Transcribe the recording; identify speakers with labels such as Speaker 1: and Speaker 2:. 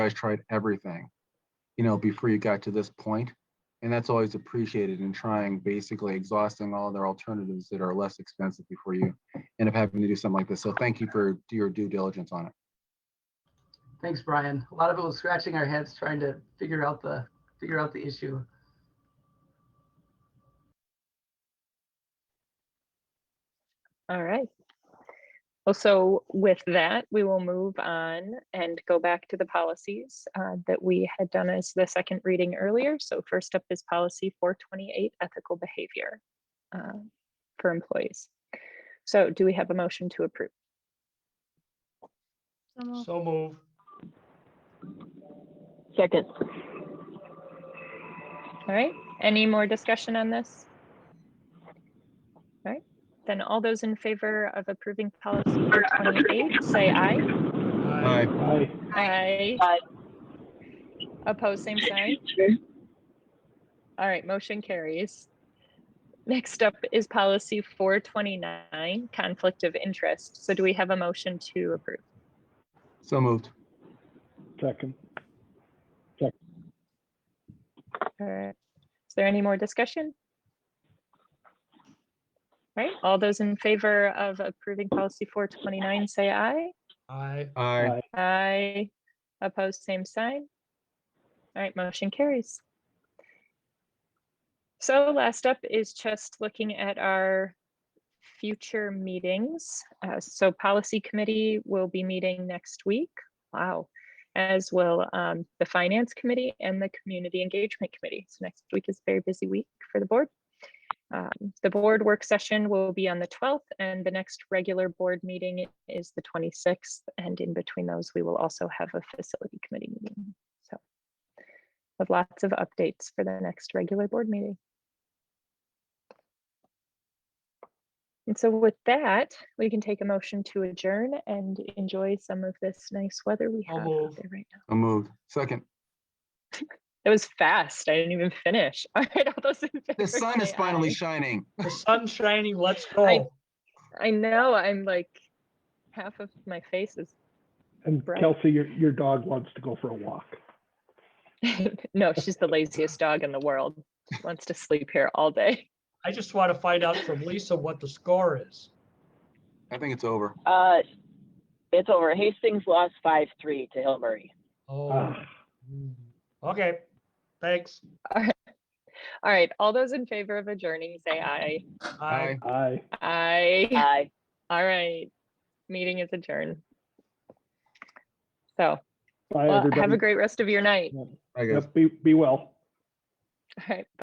Speaker 1: guys tried everything, you know, before you got to this point, And that's always appreciated in trying, basically exhausting all their alternatives that are less expensive before you end up having to do something like this. So thank you for your due diligence on it.
Speaker 2: Thanks, Brian. A lot of it was scratching our heads trying to figure out the, figure out the issue.
Speaker 3: All right. Well, so with that, we will move on and go back to the policies uh, that we had done as the second reading earlier. So first up is policy 428, ethical behavior uh, for employees. So do we have a motion to approve?
Speaker 4: So moved.
Speaker 5: So move.
Speaker 6: Second,
Speaker 3: All right, any more discussion on this? All right, then all those in favor of approving policy 428, say aye.
Speaker 1: Aye.
Speaker 3: Aye.
Speaker 6: Aye.
Speaker 3: Opposed, same sign. All right, motion carries. Next up is policy four twenty-nine, conflict of interest. So do we have a motion to approve?
Speaker 1: So moved.
Speaker 5: Second.
Speaker 3: All right. Is there any more discussion? All right, all those in favor of approving policy four twenty-nine, say aye.
Speaker 5: Aye.
Speaker 1: Aye.
Speaker 3: Aye. Opposed, same sign. All right, motion carries. So last up is just looking at our future meetings. Uh, So policy committee will be meeting next week. Wow. As will um, the finance committee and the community engagement committee. So next week is a very busy week for the board. Um, The board work session will be on the 12th and the next regular board meeting is the 26th. And in between those, we will also have a facility committee meeting. So with lots of updates for the next regular board meeting. And so with that, we can take a motion to adjourn and enjoy some of this nice weather we
Speaker 5: I'll
Speaker 3: have out
Speaker 5: move.
Speaker 3: there right now.
Speaker 1: So moved. Second,
Speaker 3: It was fast. I didn't even finish. All right, all those in favor.
Speaker 1: the sun is
Speaker 3: say
Speaker 1: finally
Speaker 3: aye.
Speaker 1: shining.
Speaker 5: The sun's shining, let's
Speaker 3: I-
Speaker 5: go.
Speaker 3: I know, I'm like, half of my face is,
Speaker 7: And
Speaker 3: Right.
Speaker 7: Kelsey, your, your dog wants to go for a walk.
Speaker 3: no, she's the laziest dog in the world. She Wants to sleep here all day.
Speaker 5: I just want to find out from Lisa what the score is.
Speaker 1: I think it's over.
Speaker 6: uh, it's over. Hastings lost five, three to Hill Murray.
Speaker 5: Oh,
Speaker 7: Ah.
Speaker 5: mm. okay, thanks.
Speaker 3: All right, all those in favor of adjourning, say aye.
Speaker 1: Aye.
Speaker 7: I.
Speaker 3: Aye.
Speaker 6: Aye.
Speaker 3: All right, meeting is adjourned. So,
Speaker 7: Bye,
Speaker 3: well, have a
Speaker 7: everybody.
Speaker 3: great rest of your night.
Speaker 1: I guess.
Speaker 7: Yep, Be, be well.
Speaker 3: All right.